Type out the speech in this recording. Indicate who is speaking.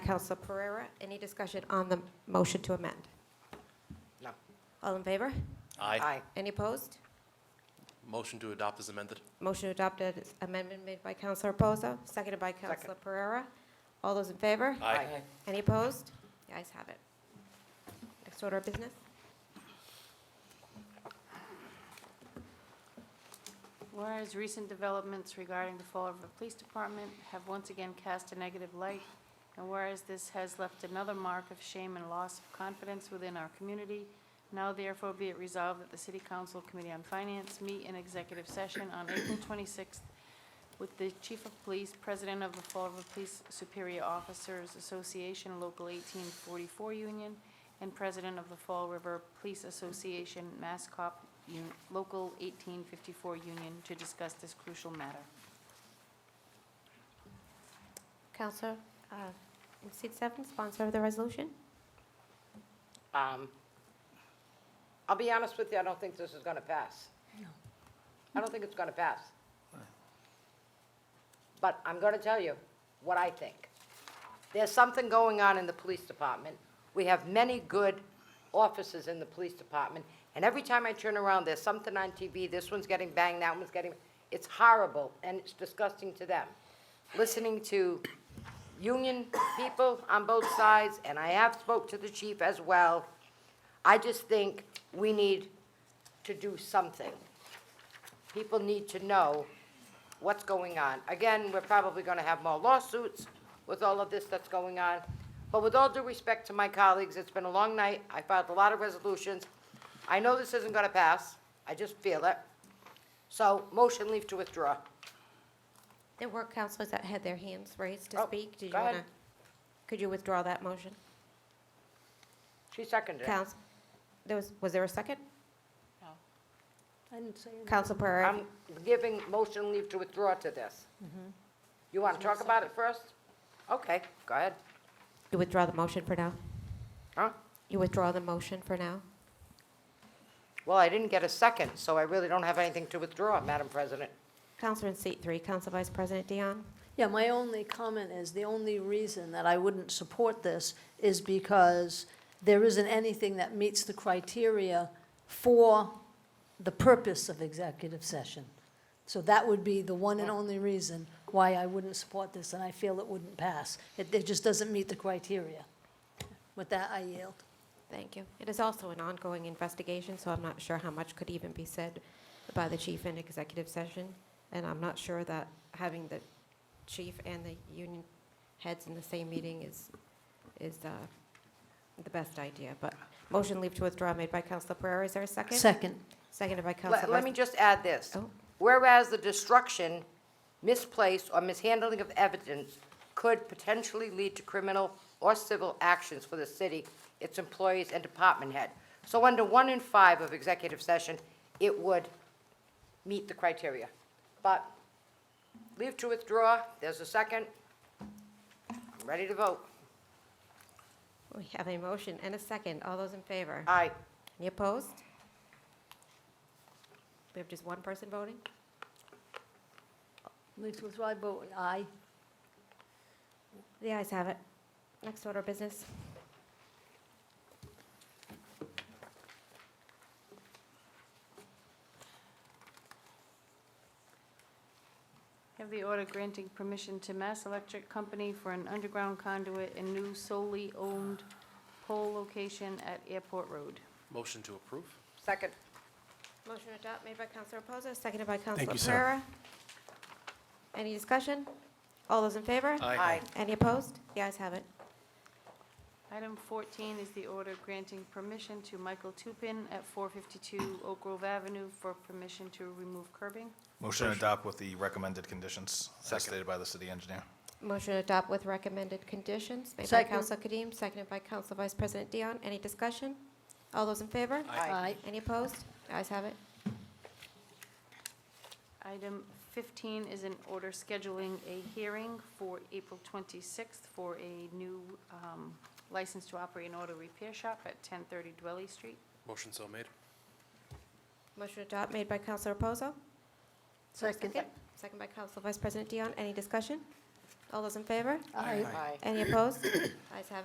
Speaker 1: Counselor Pereira. Any discussion on the motion to amend?
Speaker 2: No.
Speaker 1: All in favor?
Speaker 3: Aye.
Speaker 1: Any opposed?
Speaker 3: Motion to adopt is amended.
Speaker 1: Motion adopted, is amendment made by Counselor Reposo, seconded by Counselor Pereira. All those in favor? Any opposed? The ayes have it. Next order of business?
Speaker 4: Whereas recent developments regarding the fall of the police department have once again cast a negative light, and whereas this has left another mark of shame and loss of confidence within our community, now therefore be it resolved that the City Council Committee on Finance meet in executive session on April 26th with the Chief of Police, President of the Fall River Police Superior Officers Association Local 1844 Union, and President of the Fall River Police Association Mass Cop Un- Local 1854 Union to discuss this crucial matter.
Speaker 1: Counselor, uh, in seat seven, sponsor of the resolution?
Speaker 2: Um, I'll be honest with you, I don't think this is going to pass. No. I don't think it's going to pass. But I'm going to tell you what I think. There's something going on in the police department. We have many good officers in the police department, and every time I turn around, there's something on TV, this one's getting banged, that one's getting, it's horrible, and it's disgusting to them. Listening to union people on both sides, and I have spoke to the chief as well. I just think we need to do something. People need to know what's going on. Again, we're probably gonna have more lawsuits with all of this that's going on. But with all due respect to my colleagues, it's been a long night. I filed a lot of resolutions. I know this isn't gonna pass. I just feel it. So, motion leave to withdraw.
Speaker 1: There were counselors that had their hands raised to
Speaker 2: Oh,
Speaker 1: speak. Did you
Speaker 2: go ahead.
Speaker 1: want to? Could you withdraw that motion?
Speaker 2: She seconded it.
Speaker 1: Counsel, there was, was there a second?
Speaker 4: No.
Speaker 1: Counsel Pereira?
Speaker 2: I'm giving motion leave to withdraw to this. You want to talk about it first? Okay, go ahead.
Speaker 1: You withdraw the motion for now?
Speaker 2: Huh?
Speaker 1: You withdraw the motion for now?
Speaker 2: Well, I didn't get a second, so I really don't have anything to withdraw, Madam President.
Speaker 1: Counselor in seat three, Counsel Vice President Dion?
Speaker 5: Yeah, my only comment is, the only reason that I wouldn't support this is because there isn't anything that meets the criteria for the purpose of executive session. So that would be the one and only reason why I wouldn't support this, and I feel it wouldn't pass. It, it just doesn't meet the criteria. With that, I yield.
Speaker 1: Thank you. It is also an ongoing investigation, so I'm not sure how much could even be said by the chief in executive session. And I'm not sure that having the chief and the union heads in the same meeting is, is uh, the best idea. But motion leave to withdraw made by Counselor Pereira. Is there a second?
Speaker 5: Second.
Speaker 1: Seconded by Counselor.
Speaker 2: Let let me just add this.
Speaker 1: Oh.
Speaker 2: Whereas the destruction, misplaced, or mishandling of evidence could potentially lead to criminal or civil actions for the city, its employees, and department head. So under one in five of executive session, it would meet the criteria. But leave to withdraw, there's a second. I'm ready to vote.
Speaker 1: We have a motion and a second. All those in favor?
Speaker 2: Aye.
Speaker 1: Any opposed? We have just one person voting?
Speaker 5: Leave to withdraw, vote aye.
Speaker 1: The ayes have it. Next order of business.
Speaker 4: Have the order granting permission to Mass Electric Company for an underground conduit and new solely owned pole location at Airport Road.
Speaker 3: Motion to approve.
Speaker 2: Second.
Speaker 1: Motion to adopt made by Counselor Reposo, seconded by Counselor
Speaker 3: you, sir.
Speaker 1: Pereira. Any discussion? All those in favor?
Speaker 2: Aye.
Speaker 1: Any opposed? The ayes have it.
Speaker 4: Item 14 is the order granting permission to Michael Tupin at 452 Oak Grove Avenue for permission to remove curbing.
Speaker 6: Motion to adopt with the recommended conditions
Speaker 3: Second.
Speaker 6: as stated by the city engineer.
Speaker 1: Motion to adopt with recommended conditions made by
Speaker 5: Second.
Speaker 1: Counselor Kadim, seconded by Counselor Vice President Dion. Any discussion? All those in favor?
Speaker 5: Aye.
Speaker 1: Any opposed? The ayes have it.
Speaker 4: Item 15 is an order scheduling a hearing for April 26th for a new um, license to operate an auto repair shop at 1030 Dwelly Street.
Speaker 3: Motion so made.
Speaker 1: Motion to adopt made by Counselor Reposo.
Speaker 5: Second.
Speaker 1: Second by Counselor Vice President Dion. Any discussion? All those in favor?
Speaker 5: Aye.
Speaker 2: Aye.
Speaker 1: Any opposed? Ayes have it.